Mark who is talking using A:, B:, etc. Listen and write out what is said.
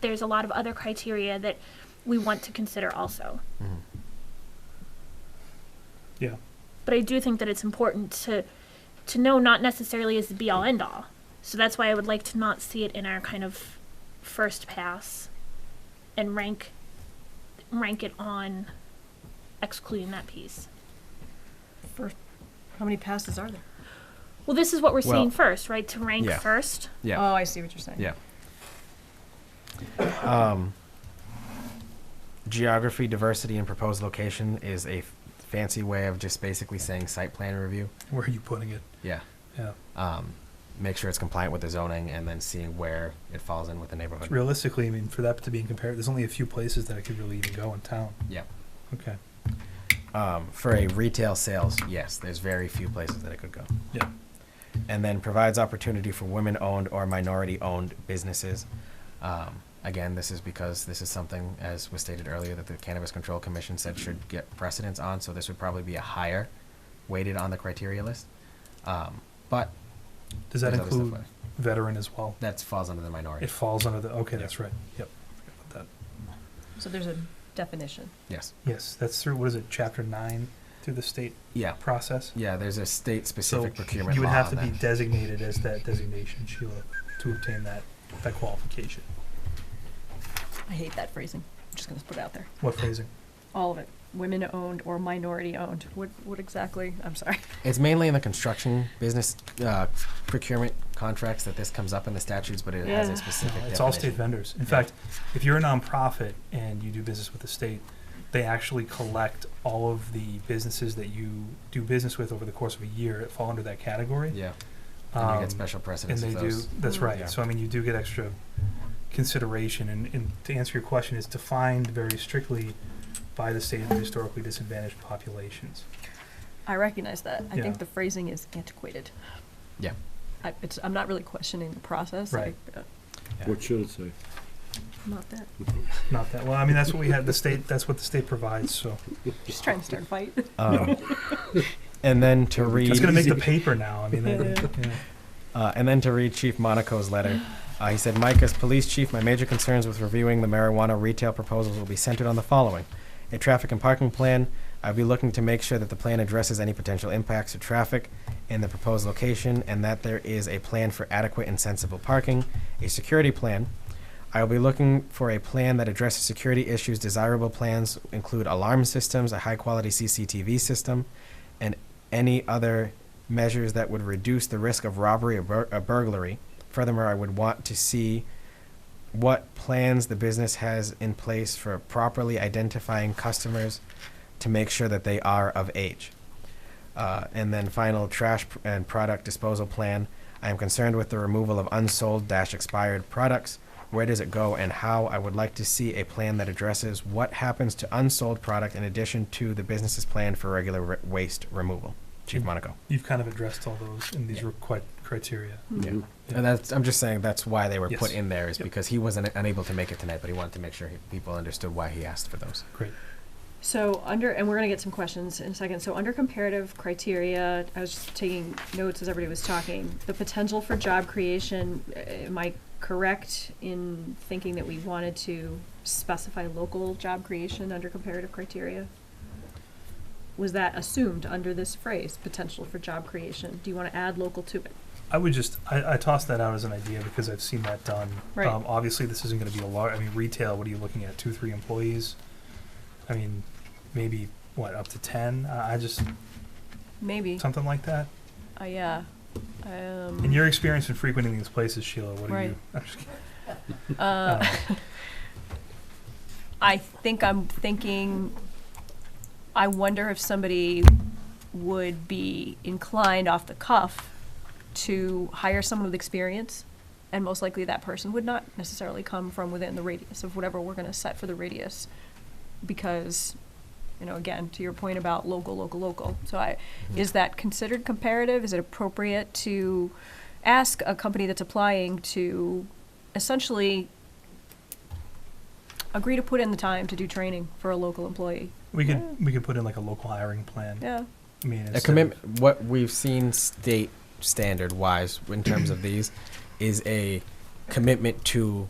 A: there's a lot of other criteria that we want to consider also.
B: Yeah.
A: But I do think that it's important to to know not necessarily is the be all end all. So that's why I would like to not see it in our kind of first pass and rank rank it on excluding that piece.
C: How many passes are there?
A: Well, this is what we're
D: Well-
A: seeing first, right? To rank
D: Yeah.
A: first.
D: Yeah.
C: Oh, I see what you're saying.
D: Yeah. Um, geography, diversity, and proposed location is a f- fancy way of just basically saying site plan review.
B: Where are you putting it?
D: Yeah.
B: Yeah.
D: Um, make sure it's compliant with the zoning and then seeing where it falls in with the neighborhood.
B: Realistically, I mean, for that to be in compared, there's only a few places that I could really even go in town.
D: Yeah.
B: Okay.
D: Um, for a retail sales, yes, there's very few places that it could go.
B: Yeah.
D: And then provides opportunity for women owned or minority owned businesses. Um, again, this is because this is something, as was stated earlier, that the Cannabis Control Commission said should get precedence on, so this would probably be a higher weighted on the criteria list. Um, but
B: Does that
D: there's other stuff
B: include
D: like-
B: veteran as well?
D: that falls under the minority.
B: It falls under the, okay,
D: Yeah.
B: that's right. Yep. Forgot about
C: So there's a definition.
D: yes.
B: that. Yes, that's through, what is it, chapter nine, through the state
D: Yeah.
B: process?
D: Yeah, there's a state
B: So
D: specific procurement
B: You would
D: law
B: have to
D: on
B: be
D: that.
B: designated as that designation, Sheila, to obtain that, that qualification.
C: I hate that phrasing. I'm just gonna put it out there.
B: What phrasing?
C: All of it. Women owned or minority owned. What, what exactly? I'm sorry.
D: It's mainly in the construction business uh, procurement contracts that this comes up in the statutes, but it has
C: Yeah.
D: a specific.
B: No, it's all state
D: definition.
B: vendors. In fact, if you're a nonprofit and you do business with the state, they actually collect all of the businesses that you do business with over the course of a year that fall under that category.
D: Yeah, and you
B: Um,
D: get special
B: and
D: precedence
B: they
D: of
B: do.
D: those.
B: That's right.
D: Yeah.
B: So I mean, you do get extra consideration. And, and to answer your question, it's defined very strictly by the state of historically disadvantaged populations.
C: I recognize that. I
B: Yeah.
C: think the phrasing is antiquated.
D: Yeah.
C: I, it's, I'm not really questioning the process. I-
B: Right.
C: uh,
E: What should it say?
C: Not that.
B: Not that well. I mean, that's what we had. The state. That's what the state provides. So
C: Just trying to start a fight.
D: Um, and then to read,
B: it's going to make the paper now. I mean, that, yeah.
D: uh, and then to read Chief Monaco's letter. Uh, he said, "Mike, as police chief, my major concerns with reviewing the marijuana retail proposals will be centered on the following: a traffic and parking plan. I'll be looking to make sure that the plan addresses any potential impacts to traffic in the proposed location, and that there is a plan for adequate and sensible parking, a security plan." I will be looking for a plan that addresses security issues. Desirable plans include alarm systems, a high quality CCTV system, and any other measures that would reduce the risk of robbery or, bur- or burglary. Furthermore, I would want to see what plans the business has in place for properly identifying customers to make sure that they are of age. Uh, and then final trash pr- and product disposal plan. I am concerned with the removal of unsold dash expired products. Where does it go and how? I would like to see a plan that addresses what happens to unsold product in addition to the business's plan for regular re- waste removal. Chief Monaco.
B: you've kind of addressed all those in these
D: Yeah.
B: requi- criteria.
D: Yeah. And that's, I'm just saying that's why they were put
B: Yes.
D: in there is
B: Yep.
D: because he wasn't unable to make it tonight, but he wanted to make sure he, people understood why he asked for those.
B: Great.
C: So under, and we're gonna get some questions in a second. So under comparative criteria, I was just taking notes as everybody was talking. The potential for job creation, uh, am I correct in thinking that we wanted to specify local job creation under comparative criteria? Was that assumed under this phrase, potential for job creation? Do you wanna add local to it?
B: I would just I, I toss that out as an idea because I've seen that done.
C: Right.
B: Um, obviously, this isn't going to be a large. I mean, retail. What are you looking at? Two, three employees. I mean, maybe what up to ten. Uh, I just
C: Maybe,
B: something like that.
C: uh, yeah.
B: In your experience in frequenting these places, Sheila, what are you? I'm just kidding.
C: Uh, I think I'm thinking, I wonder if somebody would be inclined off the cuff to hire someone with experience, and most likely that person would not necessarily come from within the radius of whatever we're gonna set for the radius, because, you know, again, to your point about local, local, local. So I, is that considered comparative? Is it appropriate to ask a company that's applying to essentially agree to put in the time to do training for a local employee.
B: We could
C: Yeah.
B: we could put in like a local hiring plan.
C: Yeah.
B: I mean,
D: a
B: instead of-
D: commitment what we've seen state standard wise in terms of these is a commitment to